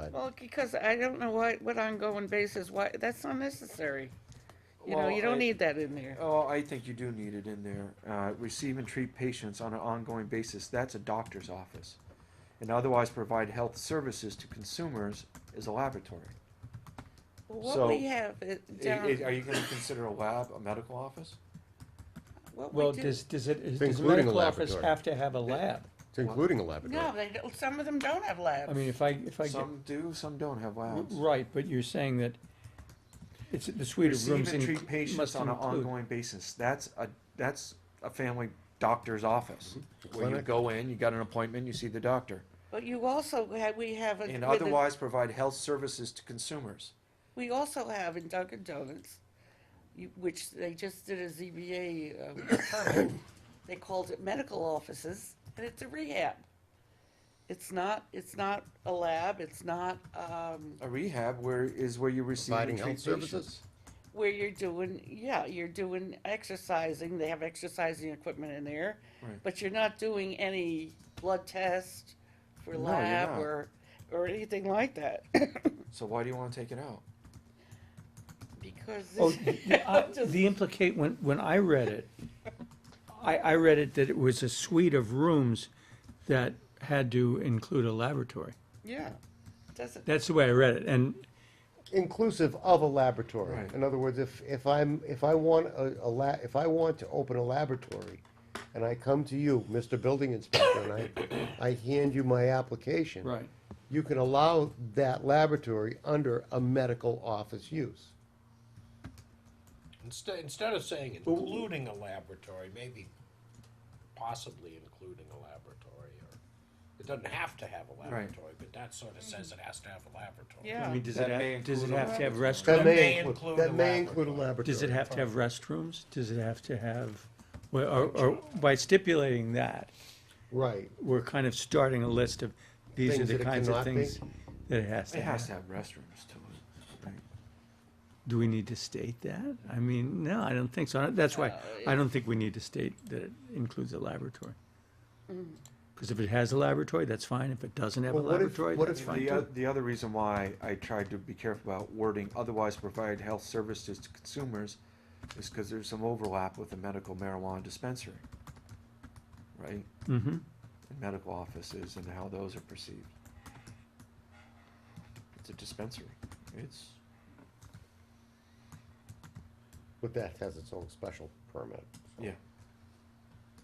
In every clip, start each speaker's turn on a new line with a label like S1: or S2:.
S1: said.
S2: Well, because I don't know what, what ongoing basis, why, that's unnecessary. You know,
S1: Well,
S2: you don't
S1: I-
S2: need that in there.
S1: Oh, I think you do need it in there. Uh, receive and treat patients on an ongoing basis. That's a doctor's office. And otherwise provide health services to consumers is a laboratory.
S2: Well,
S1: so-
S2: What we have it
S1: I-
S2: down,
S1: I- are you going to consider a lab a medical office?
S2: what
S3: Well,
S2: we do,
S3: does, does it, does the
S4: Including a
S3: medical office
S4: laboratory.
S3: have to have a lab?
S4: It's including a laboratory.
S2: no, they don't, some of them don't have labs.
S3: I mean, if I, if I get,
S1: Some do, some don't have labs.
S3: right, but you're saying that it's, the suite of
S1: Receive
S3: rooms
S1: and treat
S3: inclu-
S1: patients
S3: must
S1: on an
S3: include.
S1: ongoing basis. That's a, that's a family doctor's office. Where you
S4: Clinic.
S1: go in, you got an appointment, you see the doctor.
S2: But you also have, we have. a-
S1: And
S2: with a-
S1: otherwise provide health services to consumers.
S2: We also have in Dunkin' Donuts, you- which they just did a ZBA, um, permit. they called it medical offices, and it's a rehab. It's not, it's not a lab, it's not, um,
S1: A rehab where, is where you receive and
S4: Providing
S1: treat
S4: health
S1: patients.
S4: services?
S2: where you're doing, yeah, you're doing exercising, they have exercising equipment in there,
S1: Right.
S2: but you're not doing any blood test for
S1: No, you're
S2: lab
S1: not.
S2: or, or anything like that,
S1: So why do you want to take it out?
S2: because.
S3: Oh,
S2: this-
S3: the- I-
S2: I'm just-
S3: The implicate, when, when I read it, I, I read it that it was a suite of rooms that had to include a laboratory.
S2: Yeah, doesn't,
S3: That's the way I read it, and
S4: Inclusive of a laboratory.
S1: Right.
S4: In other words, if, if I'm, if I want a, a la, if I want to open a laboratory, and I come to you, Mr. Building Inspector, and I, I hand you my application.
S3: Right.
S4: You can allow that laboratory under a medical office use.
S5: Instead, instead of saying including a laboratory, maybe possibly including a laboratory, or, it doesn't have to have a laboratory, but that sort of says it has to have a
S3: I
S5: laboratory.
S2: yeah.
S3: mean, does
S1: That
S3: it
S1: may
S3: have, does it
S1: include a
S3: have to have
S4: That
S3: restrooms?
S4: may include, that
S5: a
S4: may include a
S5: laboratory.
S4: laboratory.
S3: Does it have to have restrooms? Does it have to have, well, or, or by stipulating that,
S4: Right.
S3: we're kind of starting a list of, these are
S4: Things
S3: the
S4: that it
S3: kinds of
S4: cannot be?
S3: things that it has
S1: It
S3: to
S1: has
S3: have.
S1: to have restrooms to it. right?
S3: Do we need to state that? I mean, no, I don't think so. That's
S4: Uh,
S3: why, I don't think we need to state that it includes a laboratory. Because if it has a laboratory, that's fine. If it doesn't have a
S4: Well, what if-
S3: laboratory,
S4: what
S3: that's
S4: if
S3: fine
S1: The, o-
S3: too.
S1: the other reason why I tried to be careful about wording, otherwise provide health services to consumers, is because there's some overlap with the medical marijuana dispensary, right?
S3: hmm
S1: And medical offices and how those are perceived. It's a dispensary. It's,
S4: But that has its own special permit.
S1: yeah.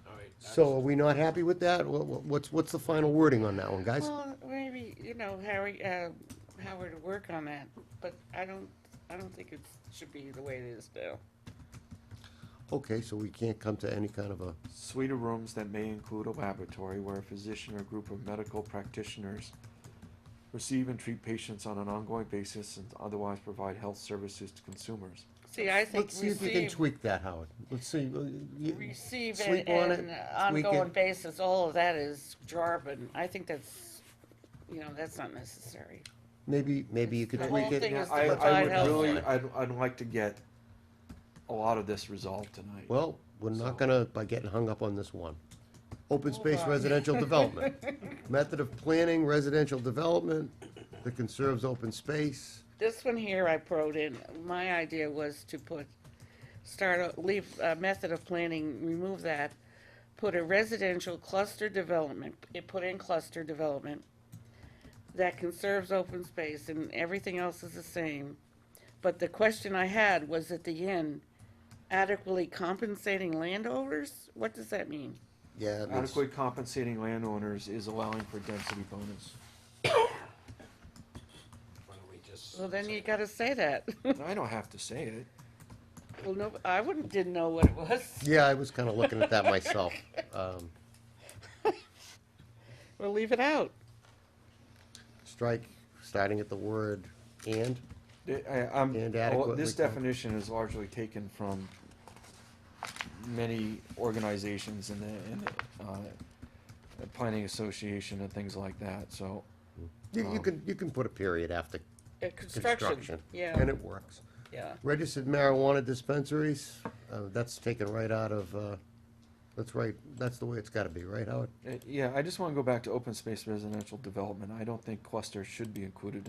S5: All right, that's-
S4: So are we not happy with that? What, what- what's, what's the final wording on that one, guys?
S2: Well, maybe, you know, Harry, uh, Howard to work on that, but I don't, I don't think it should be the way it is now.
S4: Okay, so we can't come to any kind of a,
S1: Suite of rooms that may include a laboratory where a physician or group of medical practitioners receive and treat patients on an ongoing basis and otherwise provide health services to consumers.
S2: See, I think
S4: let's see if we can
S2: receive,
S4: tweak that, Howard. Let's see. uh, you-
S2: receive and,
S4: sleep on it,
S2: and
S4: tweak it.
S2: ongoing basis, all of that is jargon. I think that's, you know, that's not necessary.
S4: Maybe, maybe you could
S2: The
S4: tweak
S2: whole
S4: it.
S2: thing is to
S1: I, I
S2: provide
S1: would
S2: health.
S1: really,
S2: care.
S1: I'd, I'd like to get a lot of this resolved tonight.
S4: Well, we're not gonna, by getting hung up on this one. Open space residential development. Method of planning residential development that conserves open space.
S2: This one here I wrote in, my idea was to put, start, a- leave a method of planning, remove that, put a residential cluster development, it put in cluster development that conserves open space and everything else is the same. But the question I had was at the end, adequately compensating landowners? What does that mean?
S4: Yeah, it means-
S1: Adequately compensating landowners is allowing for density bonus.
S5: why don't we just
S2: Well, then
S5: say-
S2: you gotta say that.
S1: I don't have to say it.
S2: Well, no, I wouldn't, didn't know what it was.
S4: yeah, I was kinda looking at that myself. Um,
S2: Well, leave it out.
S4: strike, starting at the word and.
S1: I- I, I'm,
S4: And
S1: well, this
S4: adequately comp-
S1: definition is largely taken from many organizations in the, in the, uh, the planning association and things like that, so.
S4: You,
S1: Um.
S4: you can, you can put a period after
S2: Uh, Construction,
S4: construction. And
S2: yeah,
S4: it works.
S2: yeah.
S4: Registered marijuana dispensaries, uh, that's taken right out of, uh, that's right, that's the way it's gotta be, right, Howard?
S1: eh, Uh, Yeah, I just wanna go back to open space residential development. I don't think cluster should be included